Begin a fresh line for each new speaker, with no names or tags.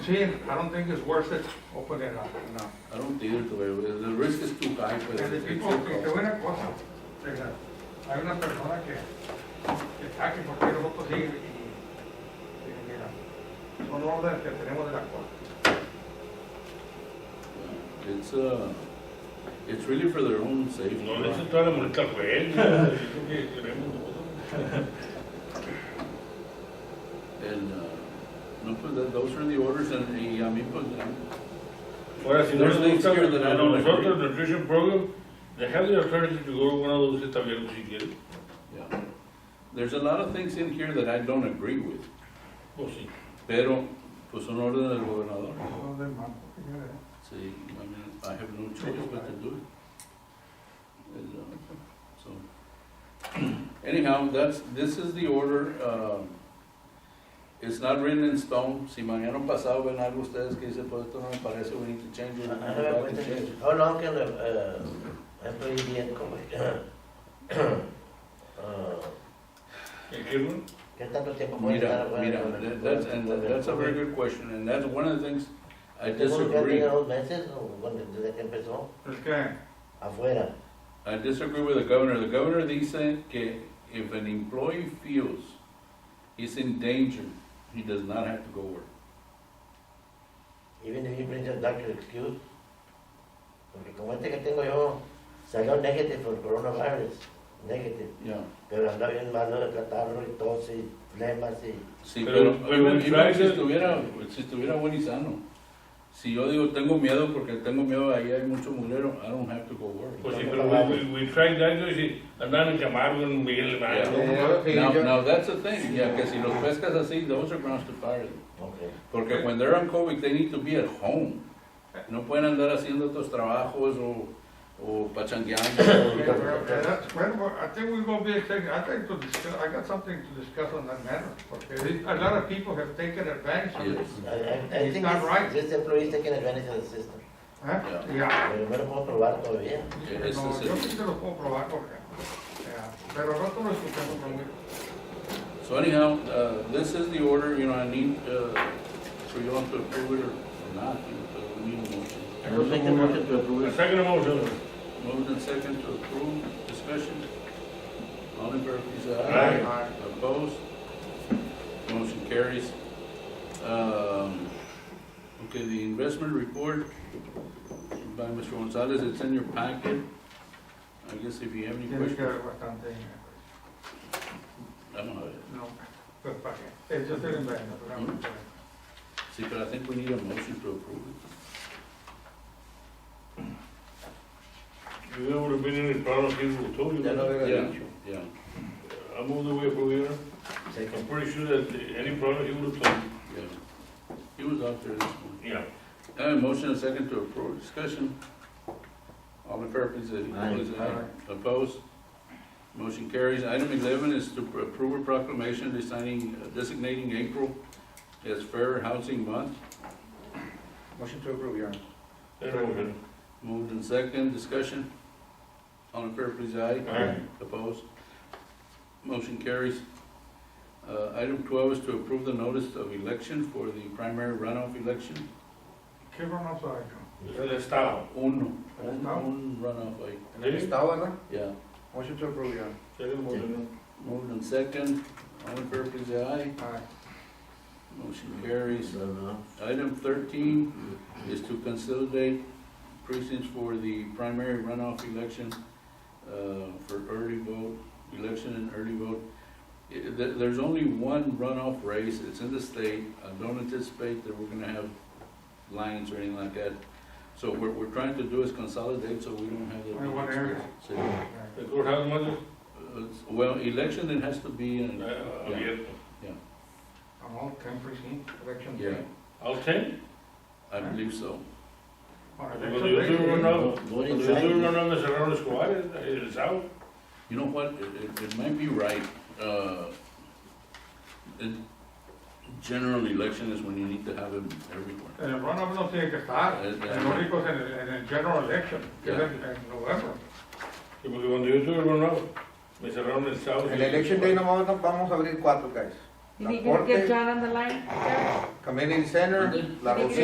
See, I don't think it's worth it open it up, no.
I don't think it'll, the risk is too high for
Porque
the
tipo, que te voy a una cosa, o sea, hay una persona que, que está que porque no lo consigue y, y mira, son órdenes que tenemos de la corte.
It's, uh, it's really for their own safety.
No les entró a la multa al juez, yo creo que queremos nosotros.
And, uh, no, pues, that- those are the orders and, y a mí, pues, eh,
Ahora, si no les
There's things
gusta,
here that I
a
don't
nosotros, nutrition program, they have the alternative to go to one of those establishments si quieren.
yeah. There's a lot of things in here that I don't agree with,
O sí.
pero, pues, son órdenes del gobernador.
Son de mano, señores.
See, I mean, I have no choice but to do it. And, uh, So, anyhow, that's, this is the order, um, it's not written in stone. Si mañana pasado ven algo ustedes que dicen, pues esto no me parece, we need to change it, we need to go back and change it.
How long can a, uh, employee be in commission?
¿En qué lugar?
¿Qué tanto tiempo puede
Mira,
estar?
mira, that- that's, and that- that's a very good question, and that's one of the things I disagree.
dos meses o cuando- desde que empezó?
Es que,
Afuera.
I disagree with the governor. The governor dice que if an employee feels he's in danger, he does not have to go work.
Even if he brings a doctor excuse. Porque como este que tengo yo, salió negative por coronavirus. Negative.
Yeah.
Pero anda bien malo de catarro y tos y flemas y...
Sí, pero,
Pero- pero
even-
en
even si
Friday-
estuviera, si estuviera buen y sano. Si yo digo tengo miedo porque tengo miedo, ahí hay mucho mulero, I don't have to go work.
Pues sí, pero we, we, we tried that, yo sí, andan en Camargo, en Miguel Hermano.
Eh, Now, now that's the thing, yeah, que si los pescas así, those are grounds to fire them.
Okay.
Porque when they're on COVID, they need to be at home. No pueden andar haciendo otros trabajos o, o
eh,
pachangueando.
pero, eh, that's- well, well, I think we're gonna be, extending- I think to discuss, I got something to discuss on that matter, porque a lot of people have taken advantage of it.
Yes.
I, I, I
It's
think
not
this,
right.
this employee is taking advantage of the system.
¿Eh?
Yeah.
Yeah.
Pero no lo puedo probar todavía.
It's the
No, yo
system.
sí te lo puedo probar, porque, eh, pero no te lo escuchamos conmigo.
So anyhow, uh, this is the order, you know, I need, uh, for you all to approve it or not, you know, but we need a motion.
I will make a motion to approve
La
it.
sacan a Mausano.
Moved and second to approve, discussion. All in favor, please say
Aye.
aye. Opposed? Motion carries. Um, Okay, the investment report by Mr. Gonzalez, it's in your packet. I guess if you have any
Tiene que
questions.
haber bastante dinero.
I don't know.
No, pues para qué. Es just an investment, pero no, pues,
See, but I think we need a motion to approve it.
Yo would have been in el plano que gustó, yo.
Ya lo había
Yeah,
dicho.
yeah.
I moved away from here. I'm
Second.
pretty sure that any problem he would have told, me.
yeah. He was out there this morning.
yeah.
I have a motion and second to approve, discussion. All in favor, please say
Aye.
please say aye. Opposed? Motion carries. Item eleven is to approve a proclamation designing, uh, designating April as Fair Housing Month.
Motion to approve, Your Honor.
That motion.
Moved and second, discussion. All in favor, please say aye.
Aye.
Opposed? Motion carries. Uh, item twelve is to approve the notice of election for the primary runoff election.
¿Qué vamos a hacer?
Es el Estado.
Uno, un,
Estado.
un runoff, ahí.
¿Sí?
Estado, ¿verdad?
yeah.
Motion to approve, Your Honor.
That motion.
Moved and second, all in favor, please say aye.
Ay,
Motion carries.
No, no.
Item thirteen is to consolidate precincts for the primary runoff election, uh, for early vote, election and early vote. I- there- there's only one runoff race, it's in the state, I don't anticipate that we're gonna have lines or anything like that. So what we're trying to do is consolidate, so we don't have that.
Only one area.
So,
ay.
The courthouse, mother?
uh, Well, election, it has to be in,
Uh,
Yeah.
abierto.
I'm all ten percent election.
yeah,
All ten?
I believe so.
All right,
Cuando yo tuve
election
un
day.
nuevo,
Voting
cuando yo tuve un
rights.
nuevo me cerraron Escobar, el el sábado.
You know what, it, it, it might be right, uh, in general election is when you need to have them everywhere.
En el runoff no tiene que estar,
Es- es-
el único es en el, en el general election, que es
Yeah.
en, en noviembre.
Sí, porque cuando yo tuve el nuevo, me cerraron el sábado.
El election day nomás vamos a abrir cuatro, guys. You think you can get John on the line? Jeff?
Community Center, La
Thank you.
Rosita.